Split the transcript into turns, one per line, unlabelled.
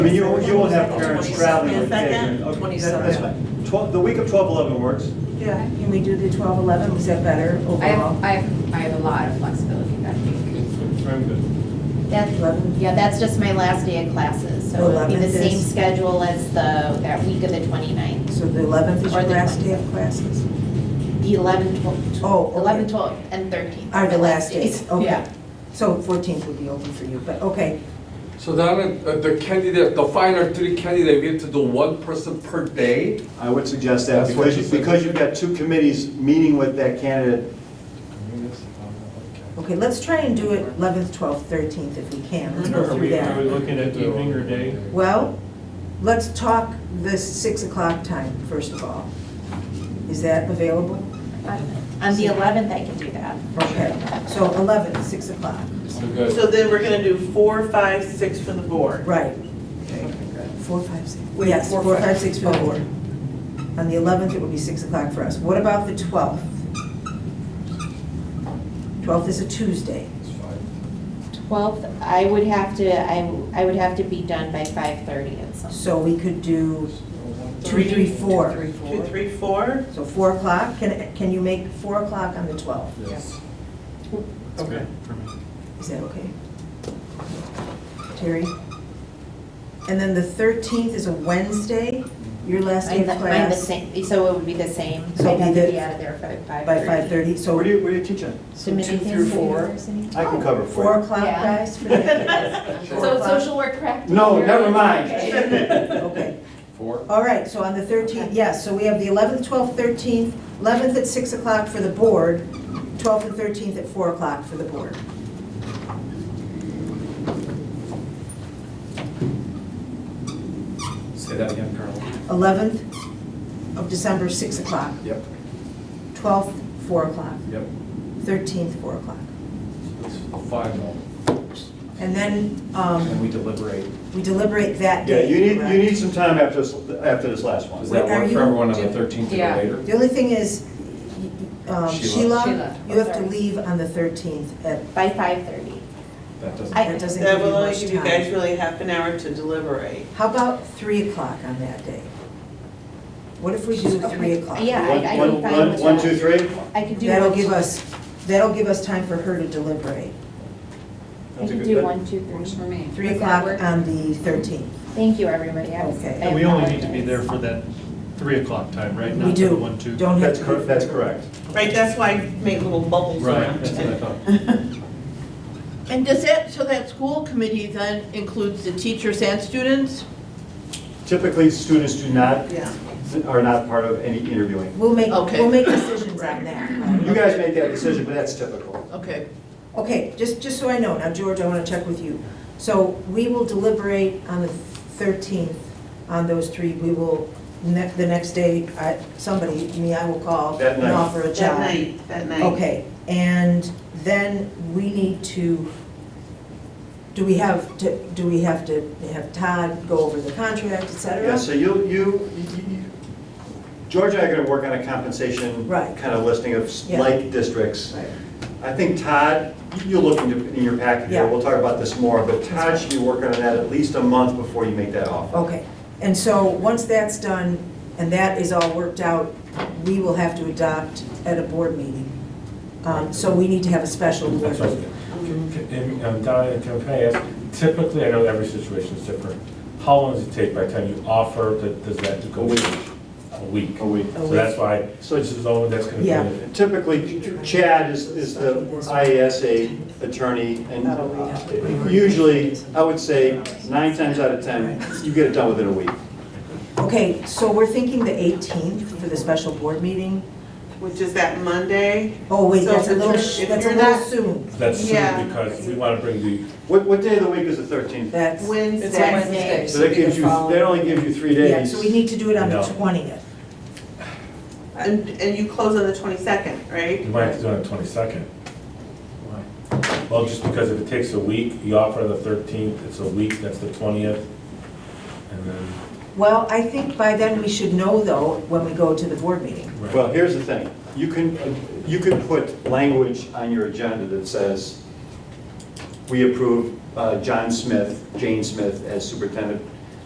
I mean, you, won't- you won't have parents traveling with
Twenty-second,
kids. Okay, that- That's
twenty-seventh.
fine. Twelve, the week of twelve eleven works.
Yeah, can we do the 12, 11, is that
I
better
have,
overall?
I have, I have a lot of flexibility that week.
I'm good.
That,
Eleven?
yeah, that's just my last day of classes, so it'll be the
Eleventh is-
same schedule as the, that week of the 29th.
So the 11th is your
Or the
last day of classes?
The 11, 12,
Oh, okay.
11, 12, and 13.
Are the last days,
days.
okay.
Yeah.
So 14th would be open for you, but, okay.
So then, uh, the candidate, the final three candidate, we have to do one person per day?
I would suggest that,
That's what
because,
she
you-
said.
because you've got two committees meeting with that candidate.
Okay, let's try and do it 11th, 12th, 13th if we can, let's go
Are
through
we, are we
that.
looking at evening or day?
Well, let's talk this 6 o'clock time, first of all. Is that available?
On the 11th, I can do that.
Okay, so 11th, 6 o'clock,
So good.
So then we're gonna do four, five, six for the board.
right. Four, five, six. Yes, four, five, six, four. On the 11th, it would be 6 o'clock for us. What about the 12th? 12th is a Tuesday.
12th, I would have to, I, I would have to be done by 5:30 and some.
So we could do two, three, four.
Three,
Two,
four.
three, four.
So four o'clock, can, can you make four o'clock on the twelfth?
Yes.
Okay.
Is that okay? Terry? And then the thirteenth is a Wednesday, your last day
I'm the-
of
I'm the
class,
same, so it would be the same.
So
I'd have
be
to
the-
be out of there by 5:30.
by five thirty, so.
So where do you, where do you teach at?
So many things to do first and-
I can cover
Four
for
o'clock,
Yeah.
guys, for that?
So it's social work practice.
No, never mind.
Okay,
Four?
all right, so on the thirteenth, yes, so we have the eleventh, twelfth, thirteenth, eleventh at six o'clock for the board, twelfth and thirteenth at four o'clock for the board.
Say that again, Colonel.
11th of December, 6 o'clock.
Yep,
12th, 4 o'clock.
yep.
13th, 4 o'clock.
It's Five now.
And then
And
um,
we deliberate.
we deliberate that
you. Yeah,
day.
you need, you
correct?
need some time after this, after this last one.
Does
Wait,
that
are
work
you-
for everyone on
do-
the 13th or
yeah.
later?
The only thing is, um,
Sheila.
Sheila,
Sheila,
you have to
sorry.
leave on the 13th. at-
By 5:30.
That doesn't.
I-
That doesn't give
That
you
will only
much
give you guys
time.
really half an hour to deliberate.
How about 3 o'clock on that day? What if we do 3 o'clock?
Yeah, I, I
One- one-
can find what's
one, two, three?
I could do.
That'll
one,
give
two-
us, that'll give us time for her to deliberate.
I
That's a
can
good-
do
that-
one, two,
Works
three.
for me.
3
Does that
o'clock
work?
on the 13th.
Thank you, everybody. I was.
Okay.
I
And we only need to be there
apologize.
for that three o'clock time, right?
We
Not for the
do.
one, two.
Don't have
That's
to.
correct, that's correct.
Right, that's why I make little bubbles
Right,
around
that's what I
it.
thought.
And does that, so that school committee then includes the teachers and students?
Typically, students do not,
Yeah.
are not part of any interviewing.
We'll make,
Okay.
we'll make decisions on that.
You guys make that decision, but that's typical.
Okay.
Okay, just, just so I know, now George, I want to check with you. So we will deliberate on the 13th on those three. We will, ne- the next day, I- somebody, me, I will call
That
and
night.
offer a
That
job.
night, that night.
Okay, and then we need to, do we have to, do we have to have Todd go over the contract, et cetera?
Yeah, so you, you, you- George and I are gonna work on a compensation
Right.
kind of listing of
Yeah.
like districts.
Right.
I think Todd, you'll look into, in your packet here,
Yeah.
we'll talk about this more, but Todd should be working on that at least a month before you make that offer.
Okay, and so, once that's done, and that is all worked out, we will have to adopt at a board meeting. Um, So we need to have a special board meeting.
Donna, can can I ask, typically, I know every situation is different, how long does it take by the time you offer, that- does that go?
A week.
A week?
A week.
A
So that's
week.
why, so this is all, that's gonna be.
Yeah.
Typically, Chad is, is the IASA attorney, and usually, I would say, nine times out of 10, you get it done within a week.
Okay, so we're thinking the 18th for the special board meeting?
Which is that Monday.
Oh, wait,
So
that's a
if
little,
you're-
sh-
if
that's a
you're
little
not-
soon.
That's
Yeah.
soon, because we wanna bring the,
What, what day of the week is the 13th?
That's,
It's a
Wednesday.
Wednesday.
So that gives you, that only gives you three
yeah,
days.
so we need to do it on the
No.
20th.
And, and you close on the twenty-second, right?
you might have to do it on the twenty-second. Well, just because if it takes a week, you offer on the thirteenth, it's a week, that's the twentieth, and then.
Well, I think by then we should know, though, when we go to the board meeting.
right.
Well, here's the thing, you can, you can put language on your agenda that says, we approve uh, John Smith, Jane Smith as superintendent